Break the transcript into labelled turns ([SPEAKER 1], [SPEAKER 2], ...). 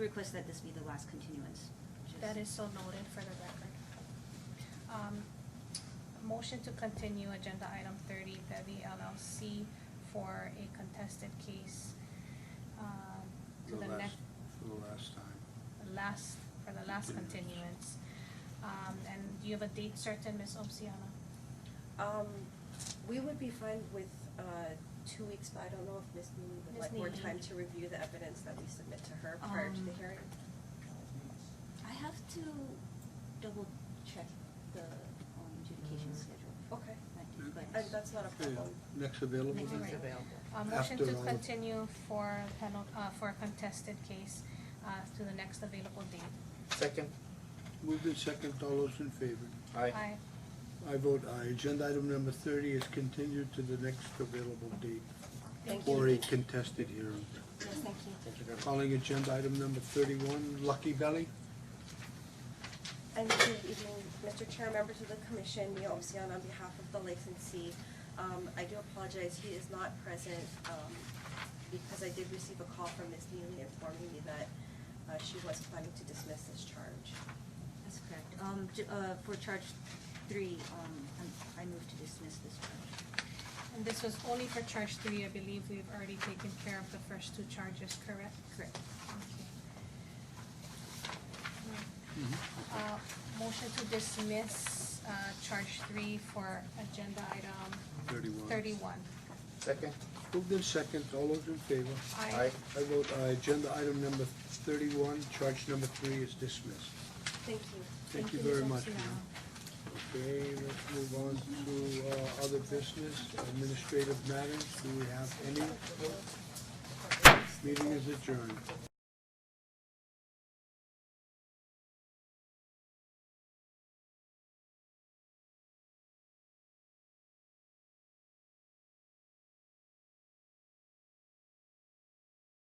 [SPEAKER 1] Request that this be the last continuance. which
[SPEAKER 2] That is so noted for the record. Um, Motion to continue agenda item thirty, Bevy LLC for a contested case um, to
[SPEAKER 3] The
[SPEAKER 2] the
[SPEAKER 3] last,
[SPEAKER 2] next,
[SPEAKER 3] for the last time.
[SPEAKER 2] last, for the last continuance. Um, And do you have a date certain, Ms. Obciana?
[SPEAKER 4] Um, we would be fine with, uh, two weeks, but I don't know if Ms. Neely would
[SPEAKER 2] Ms.
[SPEAKER 4] like more
[SPEAKER 2] Neely.
[SPEAKER 4] time to review the evidence that we submit to her prior to the
[SPEAKER 1] Um,
[SPEAKER 4] hearing.
[SPEAKER 1] is- I have to double check the um, adjudication schedule.
[SPEAKER 4] Okay.
[SPEAKER 1] But- but-
[SPEAKER 4] And Uh, that's not a
[SPEAKER 3] Okay,
[SPEAKER 4] problem.
[SPEAKER 3] Next available
[SPEAKER 2] Next
[SPEAKER 3] date?
[SPEAKER 2] available.
[SPEAKER 5] available.
[SPEAKER 2] Uh, Motion to
[SPEAKER 3] After all.
[SPEAKER 2] continue for penal, uh, for a contested case uh, to the next available date.
[SPEAKER 5] Second,
[SPEAKER 3] Moved in second, all those in favor?
[SPEAKER 5] aye.
[SPEAKER 2] Aye.
[SPEAKER 3] I vote aye. Agenda item number thirty is continued to the next available date
[SPEAKER 2] Thank
[SPEAKER 3] for
[SPEAKER 2] you.
[SPEAKER 3] a contested hearing.
[SPEAKER 1] Yes, thank you.
[SPEAKER 5] Thank you very much.
[SPEAKER 3] Calling agenda item number thirty-one, Lucky Belly.
[SPEAKER 4] And good evening, Mr. Chair, members of the commission, Neil Obsian on behalf of the licensee. Um, I do apologize, he is not present, um, because I did receive a call from Ms. Neely informing me that, uh, she was planning to dismiss this charge.
[SPEAKER 1] That's correct. Um, j- uh, for charge three, um, I'm- I move to dismiss this charge.
[SPEAKER 2] And this was only for charge three, I believe we've already taken care of the first two charges, correct?
[SPEAKER 1] Correct.
[SPEAKER 2] Okay. Uh, motion to dismiss, uh, charge three for agenda item
[SPEAKER 3] Thirty-one.
[SPEAKER 2] thirty-one.
[SPEAKER 5] Second,
[SPEAKER 3] Moved in second, all those in favor?
[SPEAKER 2] Aye.
[SPEAKER 5] aye.
[SPEAKER 3] I vote aye. Agenda item number thirty-one, charge number three is dismissed.
[SPEAKER 4] Thank you.
[SPEAKER 3] Thank you
[SPEAKER 2] Ms.
[SPEAKER 3] very much.
[SPEAKER 2] Oxiana.
[SPEAKER 3] ma'am. Okay, let's move on to uh, other business, administrative matters. Do we have any? Meeting is adjourned.